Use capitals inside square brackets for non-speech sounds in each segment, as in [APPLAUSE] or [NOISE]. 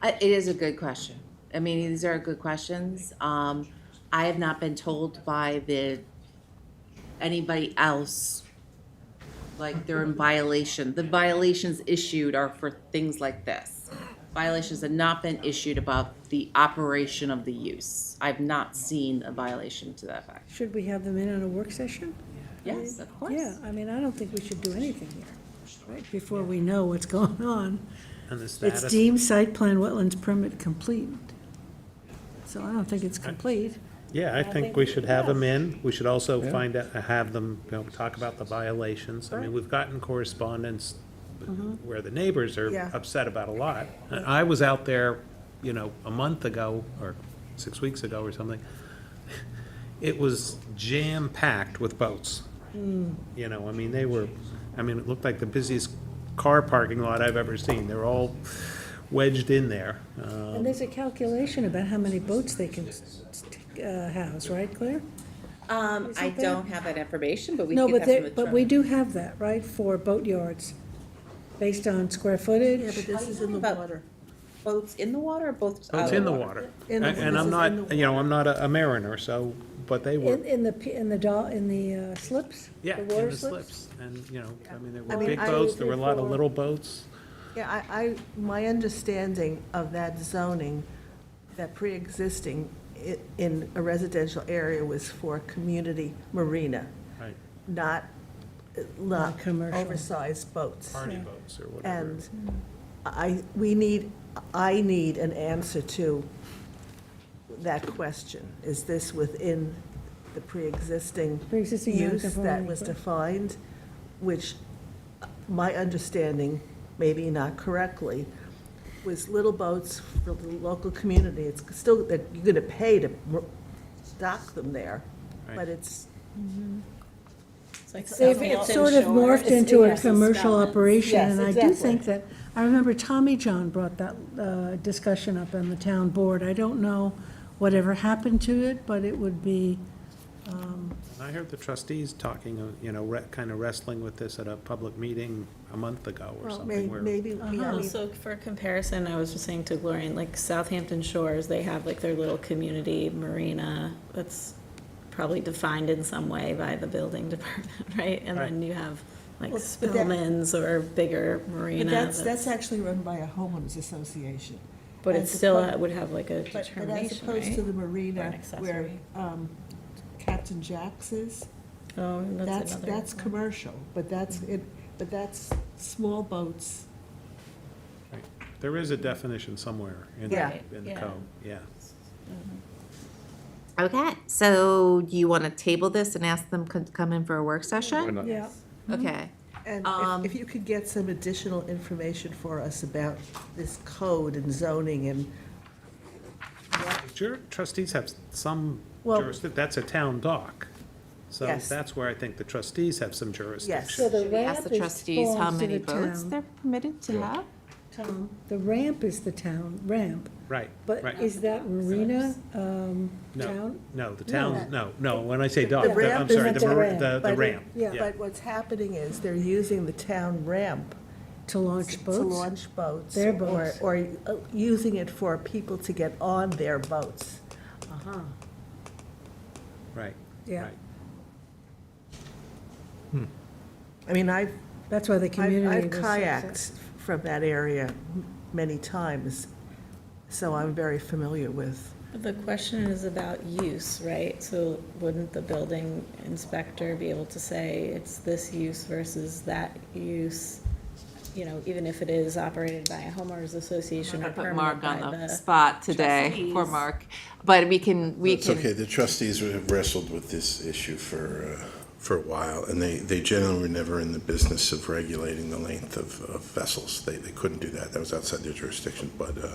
I- It is a good question. I mean, these are good questions. Um, I have not been told by the, anybody else, like they're in violation. The violations issued are for things like this. Violations have not been issued about the operation of the use. I've not seen a violation to that effect. Should we have them in on a work session? Yes, of course. Yeah, I mean, I don't think we should do anything here, right, before we know what's going on. And the It's status, deemed site plan wetlands permit complete. So I don't think it's complete. yeah, I think we should have them in. We should also find out, have them, you know, talk about the violations. I mean, we've gotten correspondence where the neighbors are Yeah. upset about a lot. And I was out there, you know, a month ago, or six weeks ago or something. [LAUGHS] It was jam-packed with boats. You know, I mean, they were, I mean, it looked like the busiest car parking lot I've ever seen. They're all wedged in there. Uh, And there's a calculation about how many boats they can uh, house, right, Claire? Um, I Isn't there- don't have that information, but we No, could but have them. they, but we do have that, right, for boatyards, based on square footage? This is in the water. Boats in the water or boats out of It's the in the Uh, water? water. In And the- and I'm this is in not, you know, I'm not a a mariner, so, but they were, In, in the, p- in the doll, in the uh, slips? yeah, in water the slips. And, you know, I mean, there I were mean, big I boats, was there were a lot of before- little boats. Yeah, I, I, my understanding of that zoning, that pre-existing i- in a residential area was for community marina, Right, not, uh, Not not commercial. oversized boats. party boats or whatever. And I, we need, I need an answer to that question. Is this within the pre-existing Pre-existing use that non-conforming, was but- defined? Which, uh, my understanding, maybe not correctly, was little boats for the local community. It's still, that you're going to pay to m- dock them there, Right. but it's, They've it's sort of morphed into a commercial operation, Yes, and I do exactly. think that, I remember Tommy John brought that uh, discussion up on the town board. I don't know whatever happened to it, but it would be, And I heard the trustees talking, uh, you know, kind of wrestling with this at a public meeting a month ago or well, may- something where. maybe, we- Uh-huh. I mean, Also, for comparison, I was just saying to Gloria, in, like Southampton Shores, they have like their little community marina that's probably defined in some way by the building [LAUGHS] department, right? And then you have like Well, but that- Spillman's or bigger But marina. that's, that's actually run by a homeowners association. But it as still opposed- uh, would have like a But, but as determination, opposed to right? the Or an marina where accessory. um, Captain Jack's is, Oh, that's, that's another. that's commercial, but that's, it, but that's small boats. right. There is a definition somewhere in Yeah. the, in the Yeah. code, yeah. Okay, so do you want to table this and ask them to come in for a work session? yeah. Okay. And Um, if- if you could get some additional information for us about this code and zoning and, Jur- Trustees have some Well- jurisdiction, that's a town dock. So Yes. that's where I think the trustees have some So jurisdiction. the We ask the trustees how many boats they're permitted to have? The ramp is the town ramp, Right, but right. is that marina, um, No, town? no, the town, no, no, when I say dock, The the- I'm ramp sorry, isn't the a mar- ramp, the, the but- ramp. yeah, but what's happening is they're using the town ramp To launch to boats? launch boats. Their or- boats. Or uh, using it for people to get on their boats. Right. Yeah. right. I mean, I've That's why the I've- community was. I've kayaked from that area m- many times, so I'm very familiar with. The question is about use, right? So wouldn't the building inspector be able to say it's this use versus that use? You know, even if it is operated by a homeowners association I or put permitted Mark on by the the- spot today, trustees. poor Mark. But we can, we It's okay, can, the trustees have wrestled with this issue for, uh, for a while, and they, they generally were never in the business of regulating the length of, of vessels. They, they couldn't do that, that was outside their jurisdiction, but uh,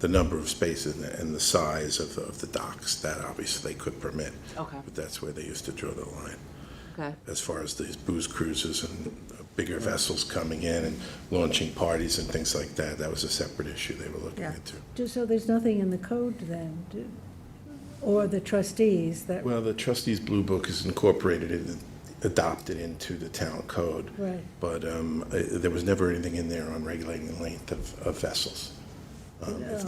the number of spaces and the- and the size of, of the docks, that obviously they could permit. Okay. But that's where they used to draw the line, okay, as far as these booze cruises and uh, bigger vessels coming in and launching parties and things like that, that was a separate issue they were looking Yeah. into. Just so there's nothing in the code then, do- or the trustees that, Well, the trustees' blue book is incorporated and adopted into the town code. Right. But um, uh, there was never anything in there on regulating the length of, of vessels. Um, if